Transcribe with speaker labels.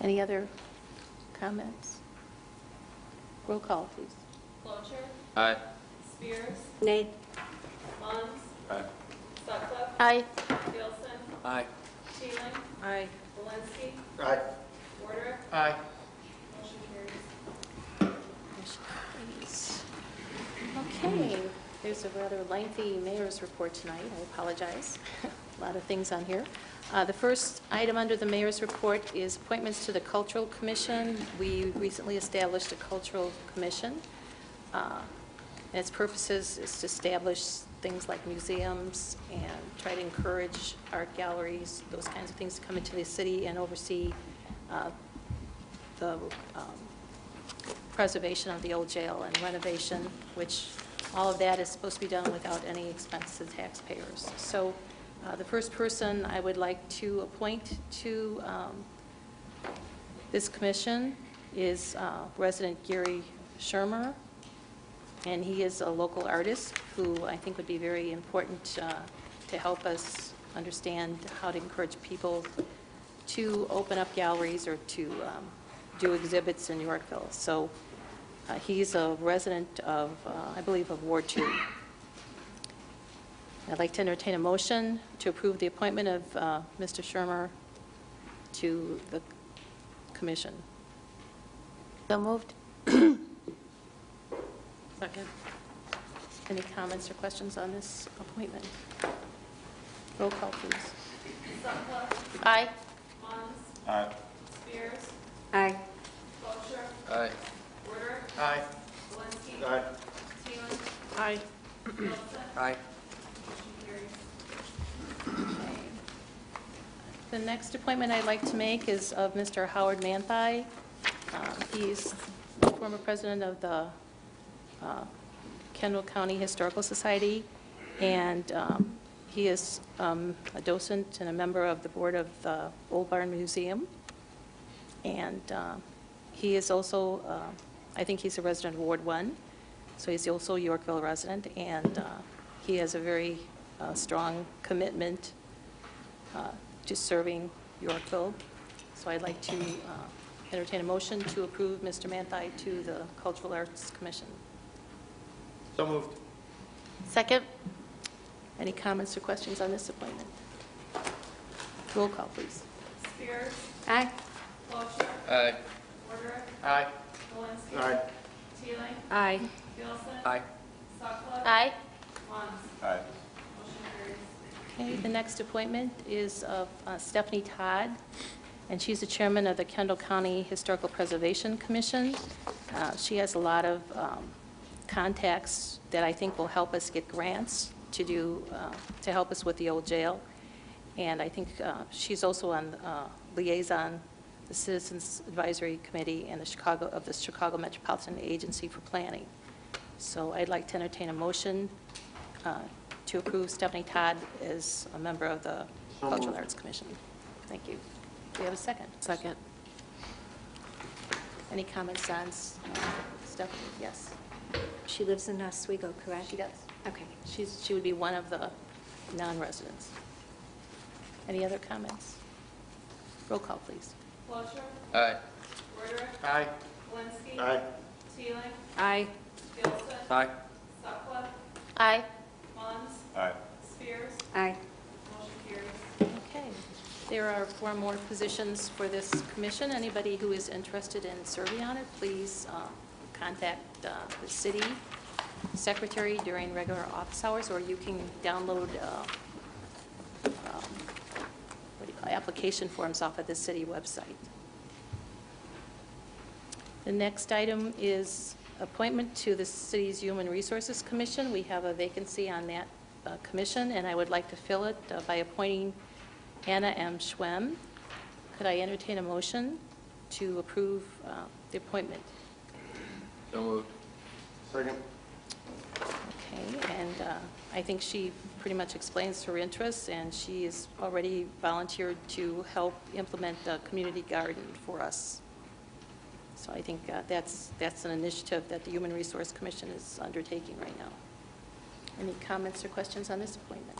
Speaker 1: Any other comments? Roll call, please.
Speaker 2: Clocher,
Speaker 3: Aye.
Speaker 2: Spears,
Speaker 1: Nay.
Speaker 2: Munns,
Speaker 3: Aye.
Speaker 2: Sutcliffe,
Speaker 1: Aye.
Speaker 2: Gilson,
Speaker 3: Aye.
Speaker 2: Sheehan,
Speaker 1: Aye.
Speaker 2: Valinsky,
Speaker 3: Aye.
Speaker 2: Warder,
Speaker 3: Aye.
Speaker 2: motion carries.
Speaker 1: Okay, there's a rather lengthy mayor's report tonight, I apologize. A lot of things on here. Uh, The first item under the mayor's report is appointments to the Cultural Commission. We recently established a Cultural Commission. Uh, And its purposes is to establish things like museums and try to encourage art galleries, those kinds of things to come into the city and oversee uh, the um, preservation of the old jail and renovation, which all of that is supposed to be done without any expense to taxpayers. So uh, the first person I would like to appoint to um, this commission is uh, resident Gary Shermer, and he is a local artist who I think would be very important uh, to help us understand how to encourage people to open up galleries or to um, do exhibits in Yorkville. So uh, he's a resident of, uh, I believe, of Ward 2. I'd like to entertain a motion to approve the appointment of uh, Mr. Shermer to the commission. So moved. Second. Any comments or questions on this appointment? Roll call, please.
Speaker 2: Sutcliffe,
Speaker 1: Aye.
Speaker 2: Munns,
Speaker 3: Aye.
Speaker 2: Spears,
Speaker 1: Aye.
Speaker 2: Clocher,
Speaker 3: Aye.
Speaker 2: Warder,
Speaker 3: Aye.
Speaker 2: Valinsky,
Speaker 3: Aye.
Speaker 2: Sheehan,
Speaker 1: Aye.
Speaker 2: Gilson,
Speaker 3: Aye.
Speaker 2: motion carries.
Speaker 1: The next appointment I'd like to make is of Mr. Howard Manthai. Um, He's former president of the uh, Kendall County Historical Society, and um, he is um, a docent and a member of the board of the Old Barn Museum. And um, he is also, uh, I think he's a resident of Ward 1, so he's also a Yorkville resident, and uh, he has a very uh, strong commitment uh, to serving Yorkville. So I'd like to uh, entertain a motion to approve Mr. Manthai to the Cultural Arts Commission.
Speaker 3: So moved.
Speaker 1: Second. Any comments or questions on this appointment? Roll call, please.
Speaker 2: Spears,
Speaker 1: Aye.
Speaker 2: Clocher,
Speaker 3: Aye.
Speaker 2: Warder,
Speaker 3: Aye.
Speaker 2: Valinsky.
Speaker 3: Aye.
Speaker 2: Teeling,
Speaker 1: Aye.
Speaker 2: Gilson.
Speaker 3: Aye.
Speaker 2: Sutcliffe.
Speaker 1: Aye.
Speaker 2: Munns,
Speaker 3: Aye.
Speaker 2: motion carries.
Speaker 1: Okay, the next appointment is of uh, Stephanie Todd, and she's the chairman of the Kendall County Historical Preservation Commission. Uh, She has a lot of um, contacts that I think will help us get grants to do, uh, to help us with the old jail. And I think uh, she's also on uh, liaison, the Citizens Advisory Committee and the Chicago, of the Chicago Metropolitan Agency for Planning. So I'd like to entertain a motion uh, to approve Stephanie Todd as a member of the
Speaker 3: So
Speaker 1: Cultural
Speaker 3: moved.
Speaker 1: Arts Commission. Thank you. Do we have a second? Second. Any comments on S- uh, Stephanie? Yes,
Speaker 4: She lives in Oswego, correct?
Speaker 1: she does.
Speaker 4: Okay.
Speaker 1: She's, she would be one of the non-residents. Any other comments? Roll call, please.
Speaker 2: Clocher,
Speaker 3: Aye.
Speaker 2: Warder,
Speaker 3: Aye.
Speaker 2: Valinsky.
Speaker 3: Aye.
Speaker 2: Teeling,
Speaker 4: Aye.
Speaker 2: Gilson.
Speaker 3: Aye.
Speaker 2: Sutcliffe,
Speaker 1: Aye.
Speaker 2: Munns,
Speaker 3: Aye.
Speaker 2: Spears,
Speaker 4: Aye.
Speaker 2: motion carries.
Speaker 1: Okay. There are four more positions for this commission. Anybody who is interested in serving on it, please uh, contact uh, the city secretary during regular office hours, or you can download uh, um, what do you call, it, application forms off of the city website. The next item is appointment to the city's Human Resources Commission. We have a vacancy on that uh, commission, and I would like to fill it uh, by appointing Anna M. Schwem. Could I entertain a motion to approve uh, the appointment?
Speaker 3: So moved. Second.
Speaker 1: Okay, and uh, I think she pretty much explains her interests, and she has already volunteered to help implement the community garden for us. So I think uh, that's, that's an initiative that the Human Resource Commission is undertaking right now. Any comments or questions on this appointment?